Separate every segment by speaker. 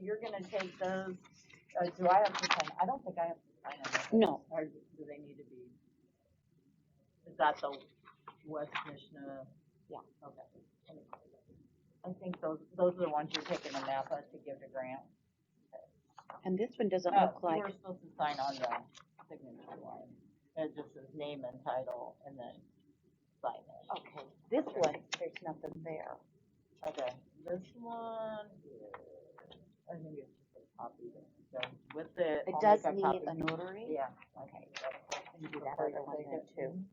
Speaker 1: you're gonna take those, uh, do I have to sign, I don't think I have to sign them,
Speaker 2: No,
Speaker 1: or do they need to be? Is that the West Nishna?
Speaker 2: Yeah.
Speaker 1: Okay. I think those, those are the ones you're taking to Napa to give to Grant.
Speaker 2: and this one doesn't
Speaker 1: Oh,
Speaker 2: look like,
Speaker 1: You were supposed to sign on the signature line, it just says name and title and then sign it.
Speaker 2: okay, this one, there's nothing there.
Speaker 1: Okay, this one, is- I think it's just a copy that goes with it.
Speaker 2: It
Speaker 1: I'll
Speaker 2: does
Speaker 1: make
Speaker 2: need
Speaker 1: copy.
Speaker 2: a notary.
Speaker 1: Yeah.
Speaker 2: Okay.
Speaker 1: that's-
Speaker 2: You do
Speaker 1: for
Speaker 2: that
Speaker 1: further
Speaker 2: other one there
Speaker 1: signature.
Speaker 2: too.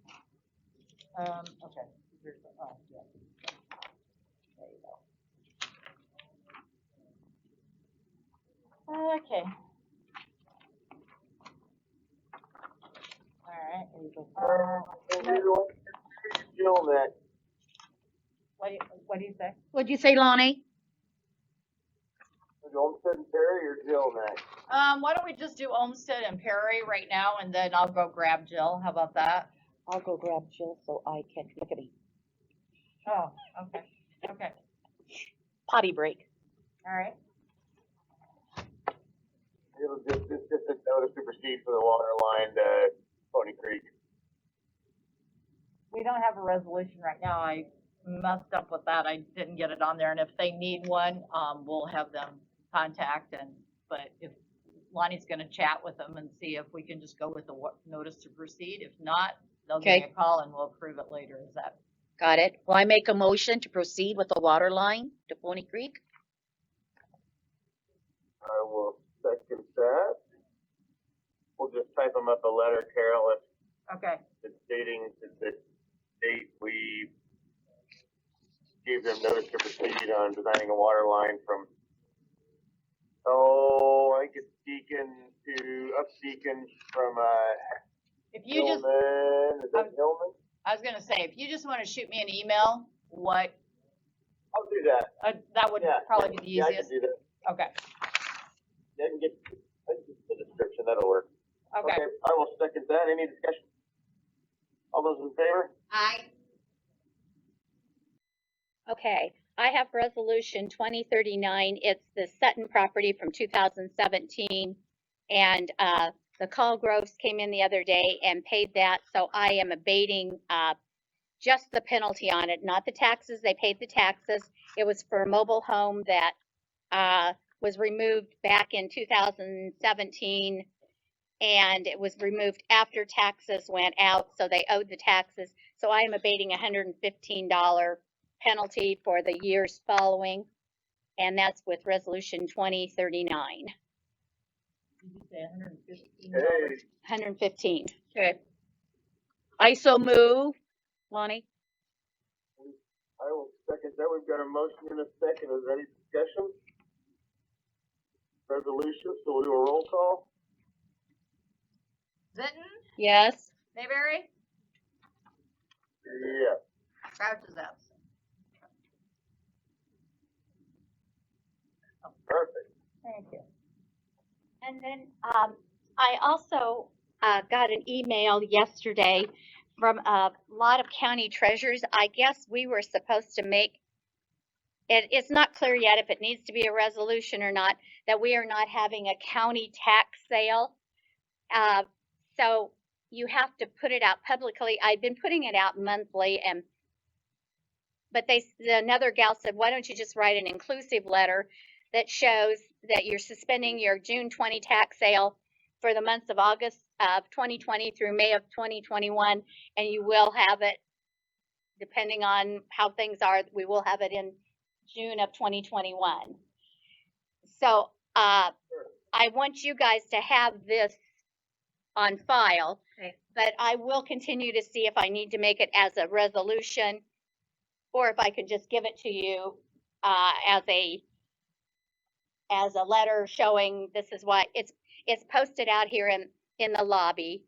Speaker 1: Um, okay, here's, the- oh, yeah. There you go. Okay. Alright,
Speaker 3: Um, and you want to feel that
Speaker 1: what do you, what do you say?
Speaker 4: What'd you say, Lonnie?
Speaker 3: is Olmsted and Perry or Jill next?
Speaker 1: Um, why don't we just do Olmsted and Perry right now and then I'll go grab Jill, how about that?
Speaker 2: I'll go grab Jill so I can, look at me,
Speaker 1: Oh, okay, okay,
Speaker 2: potty break.
Speaker 1: alright.
Speaker 3: It'll just, it's just a notice to proceed for the water line to Pony Creek.
Speaker 1: we don't have a resolution right now, I messed up with that, I didn't get it on there, and if they need one, um, we'll have them contact and, but if Lonnie's gonna chat with them and see if we can just go with the wa- notice to proceed, if not, they'll give me a call and we'll approve it later, is that,
Speaker 4: Got it. Well, I make a motion to proceed with the water line to Pony Creek.
Speaker 3: I will second that. We'll just type them up a letter, Carol, if
Speaker 1: okay,
Speaker 3: it's stating that the date we gave them notice to proceed on designing a water line from, oh, I think it's Deacon to, up Deacon from, uh,
Speaker 1: if you just,
Speaker 3: Hillman, is that
Speaker 1: I'm-
Speaker 3: Hillman?
Speaker 1: I was gonna say, if you just wanna shoot me an email, what,
Speaker 3: I'll do that.
Speaker 1: uh, that would
Speaker 3: yeah.
Speaker 1: probably be the
Speaker 3: Yeah, I can
Speaker 1: easiest,
Speaker 3: do that.
Speaker 1: okay,
Speaker 3: Yeah, I can get, I can get the description, that'll work.
Speaker 1: okay,
Speaker 3: I will second that, any discussion? All those in favor?
Speaker 4: Aye.
Speaker 5: Okay, I have resolution twenty thirty-nine, it's the Sutton property from two thousand seventeen. And, uh, the Colgroves came in the other day and paid that, so I am abating, uh, just the penalty on it, not the taxes, they paid the taxes. It was for a mobile home that, uh, was removed back in two thousand seventeen. And it was removed after taxes went out, so they owed the taxes. So I am abating hundred and fifteen dollar penalty for the years following, and that's with resolution twenty thirty-nine,
Speaker 1: did you say hundred and fifteen
Speaker 3: Hey,
Speaker 5: hundred and fifteen.
Speaker 4: Okay. I so move. Lonnie?
Speaker 3: I will second that, we've got a motion and a second, is there any discussion? Resolution, so we'll do a roll call?
Speaker 1: Vinton,
Speaker 5: Yes.
Speaker 1: Mayberry,
Speaker 3: Yeah,
Speaker 1: Crouch is absent.
Speaker 3: perfect.
Speaker 1: Thank you.
Speaker 5: And then,
Speaker 4: Um,
Speaker 5: I also, uh, got an email yesterday from a lot of county treasurers. I guess we were supposed to make, it, it's not clear yet if it needs to be a resolution or not, that we are not having a county tax sale. Uh, so you have to put it out publicly. I've been putting it out monthly and, but they, s- another gal said, why don't you just write an inclusive letter that shows that you're suspending your June twenty tax sale for the months of August of 2020 through May of 2021, and you will have it, depending on how things are, we will have it in June of 2021. So, uh, I want you guys to have this on file,
Speaker 4: Okay.
Speaker 5: but I will continue to see if I need to make it as a resolution, or if I can just give it to you, uh, as a, as a letter showing this is what, it's it's posted out here in, in the lobby.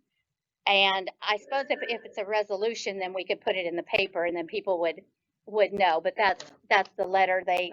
Speaker 5: And I suppose if, if it's a resolution, then we could put it in the paper and then people would, would know, but that's, that's the letter they